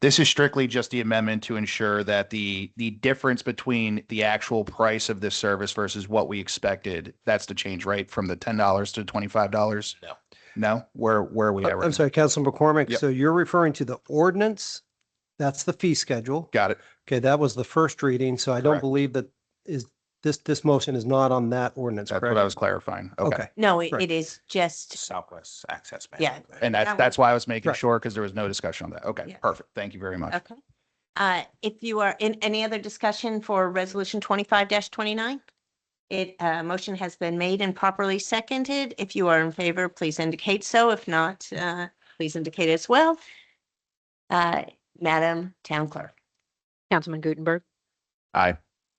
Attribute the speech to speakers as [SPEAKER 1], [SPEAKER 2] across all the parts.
[SPEAKER 1] This is strictly just the amendment to ensure that the, the difference between the actual price of this service versus what we expected, that's the change, right? From the ten dollars to twenty-five dollars?
[SPEAKER 2] No.
[SPEAKER 1] No? Where, where are we at? right
[SPEAKER 3] Uh, I'm
[SPEAKER 1] now?
[SPEAKER 3] sorry, Councilman McCormick.
[SPEAKER 1] Yep.
[SPEAKER 3] So you're referring to the ordinance? That's the fee schedule.
[SPEAKER 1] Got it.
[SPEAKER 3] Okay, that was the first reading, so I don't
[SPEAKER 1] Correct.
[SPEAKER 3] believe that is, this, this motion is not on that ordinance,
[SPEAKER 1] That's what I
[SPEAKER 3] correct?
[SPEAKER 1] was clarifying. Okay.
[SPEAKER 3] Okay,
[SPEAKER 4] No, it
[SPEAKER 3] Right.
[SPEAKER 4] it is just,
[SPEAKER 2] Southwest Access
[SPEAKER 4] Yeah.
[SPEAKER 2] Management.
[SPEAKER 1] And
[SPEAKER 4] That
[SPEAKER 1] that's,
[SPEAKER 4] one-
[SPEAKER 1] that's why I was making
[SPEAKER 3] Right.
[SPEAKER 1] sure, because there was no discussion on that. Okay,
[SPEAKER 4] Yeah.
[SPEAKER 1] perfect. Thank you very much.
[SPEAKER 4] okay. Uh, If you are in any other discussion for resolution twenty-five twenty-nine? It, uh, motion has been made and properly seconded. If you are in favor, please indicate so. If not, uh, please indicate as well. Uh, Madam Town Clerk.
[SPEAKER 5] Councilman Gutenberg,
[SPEAKER 1] Aye.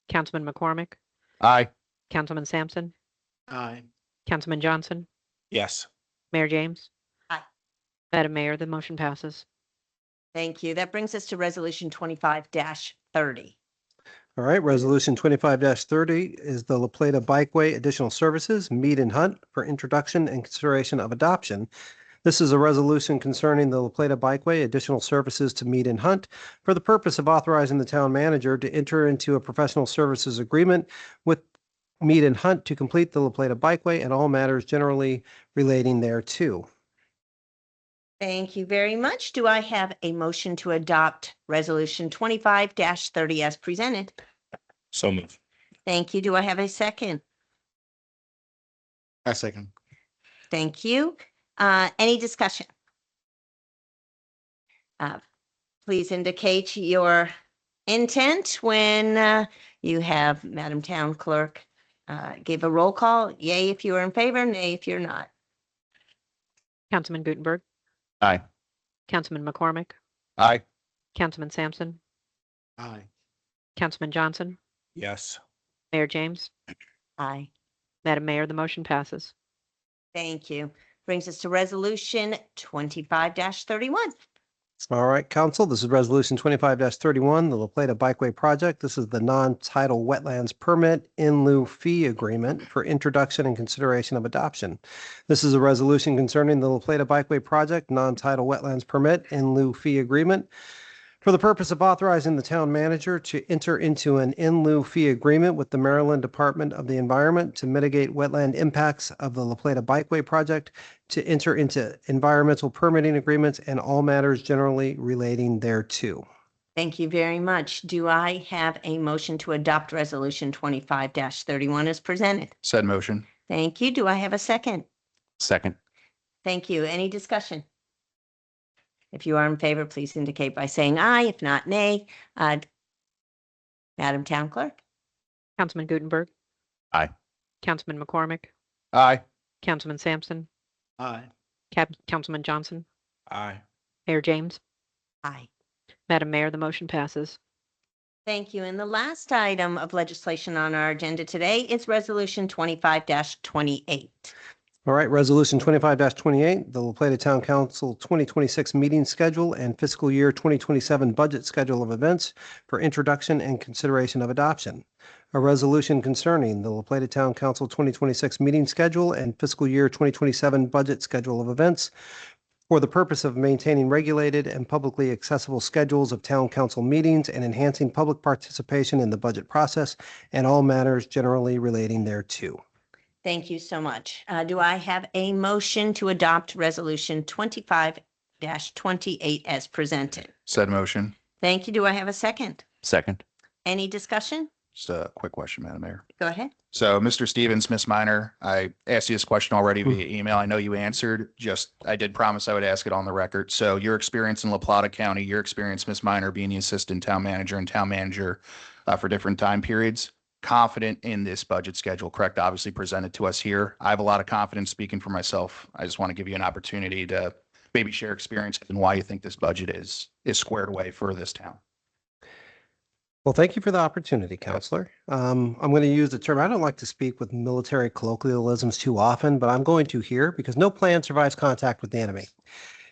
[SPEAKER 5] Councilman McCormick,
[SPEAKER 1] Aye.
[SPEAKER 5] Councilman Sampson,
[SPEAKER 2] Aye.
[SPEAKER 5] Councilman Johnson,
[SPEAKER 2] Yes.
[SPEAKER 5] Mayor James.
[SPEAKER 4] Aye.
[SPEAKER 5] Madam Mayor, the motion passes.
[SPEAKER 4] Thank you. That brings us to resolution twenty-five thirty.
[SPEAKER 3] all right. Resolution twenty-five thirty is the La Plata Bikeway Additional Services Meet and Hunt for Introduction and Consideration of Adoption. This is a resolution concerning the La Plata Bikeway Additional Services to Meet and Hunt for the purpose of authorizing the town manager to enter into a professional services agreement with Meet and Hunt to complete the La Plata Bikeway and all matters generally relating thereto.
[SPEAKER 4] Thank you very much. Do I have a motion to adopt resolution twenty-five thirty as presented?
[SPEAKER 2] So move.
[SPEAKER 4] Thank you. Do I have a second?
[SPEAKER 2] I second.
[SPEAKER 4] Thank you. Uh, any discussion? Uh, Please indicate your intent when, uh, you have Madam Town Clerk, uh, give a roll call. Yay if you are in favor, nay if you're not.
[SPEAKER 5] Councilman Gutenberg.
[SPEAKER 1] Aye.
[SPEAKER 5] Councilman McCormick,
[SPEAKER 1] Aye.
[SPEAKER 5] Councilman Sampson,
[SPEAKER 2] Aye.
[SPEAKER 5] Councilman Johnson,
[SPEAKER 2] Yes.
[SPEAKER 5] Mayor James.
[SPEAKER 4] Aye.
[SPEAKER 5] Madam Mayor, the motion passes.
[SPEAKER 4] Thank you. Brings us to resolution twenty-five thirty-one.
[SPEAKER 3] All right, council, this is resolution twenty-five thirty-one, the La Plata Bikeway Project. This is the non-tidal wetlands permit in lieu fee agreement for introduction and consideration of adoption. This is a resolution concerning the La Plata Bikeway Project, non-tidal wetlands permit in lieu fee agreement for the purpose of authorizing the town manager to enter into an in lieu fee agreement with the Maryland Department of the Environment to mitigate wetland impacts of the La Plata Bikeway Project to enter into environmental permitting agreements and all matters generally relating thereto.
[SPEAKER 4] Thank you very much. Do I have a motion to adopt resolution twenty-five thirty-one as presented?
[SPEAKER 1] Said motion.
[SPEAKER 4] Thank you. Do I have a second?
[SPEAKER 1] Second.
[SPEAKER 4] Thank you. Any discussion? If you are in favor, please indicate by saying aye. If not, nay. Uh, Madam Town Clerk?
[SPEAKER 5] Councilman Gutenberg.
[SPEAKER 1] Aye.
[SPEAKER 5] Councilman McCormick,
[SPEAKER 1] Aye.
[SPEAKER 5] Councilman Sampson,
[SPEAKER 2] Aye.
[SPEAKER 5] Cap, Councilman Johnson,
[SPEAKER 2] Aye.
[SPEAKER 5] Mayor James.
[SPEAKER 4] Aye.
[SPEAKER 5] Madam Mayor, the motion passes.
[SPEAKER 4] Thank you. And the last item of legislation on our agenda today is Resolution twenty-five twenty-eight.
[SPEAKER 3] All right, Resolution twenty-five twenty-eight, the La Plata Town Council twenty twenty-six meeting schedule and fiscal year twenty twenty-seven budget schedule of events for introduction and consideration of adoption. A resolution concerning the La Plata Town Council twenty twenty-six meeting schedule and fiscal year twenty twenty-seven budget schedule of events for the purpose of maintaining regulated and publicly accessible schedules of town council meetings and enhancing public participation in the budget process and all matters generally relating thereto.
[SPEAKER 4] Thank you so much. Uh, Do I have a motion to adopt Resolution twenty-five twenty-eight as presented?
[SPEAKER 1] Said motion.
[SPEAKER 4] Thank you. Do I have a second?
[SPEAKER 1] Second.
[SPEAKER 4] Any discussion?
[SPEAKER 1] Just a quick question, Madam Mayor.
[SPEAKER 4] Go ahead.
[SPEAKER 1] So, Mr. Stevens, Miss Minor, I asked you this question already via email. I know you answered, just, I did promise I would ask it on the record. So your experience in La Plata County, your experience, Miss Minor, being the assistant town manager and town manager uh, for different time periods, confident in this budget schedule, correct? Obviously presented to us here. I have a lot of confidence speaking for myself. I just want to give you an opportunity to maybe share experience and why you think this budget is, is squared away for this town.
[SPEAKER 3] Well, thank you for the opportunity, Counselor. Um, I'm going to use the term, I don't like to speak with military colloquialisms too often, but I'm going to here because no plan survives contact with the enemy.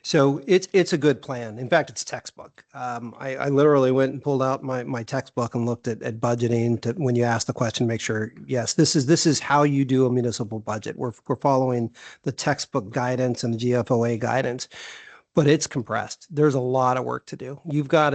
[SPEAKER 3] So it's, it's a good plan. In fact, it's textbook. Um, I, I literally went and pulled out my, my textbook and looked at, at budgeting to, when you ask the question, make sure, yes, this is, this is how you do a municipal budget. We're, we're following the textbook guidance and the GFOA guidance. but it's compressed. There's a lot of work to do. You've got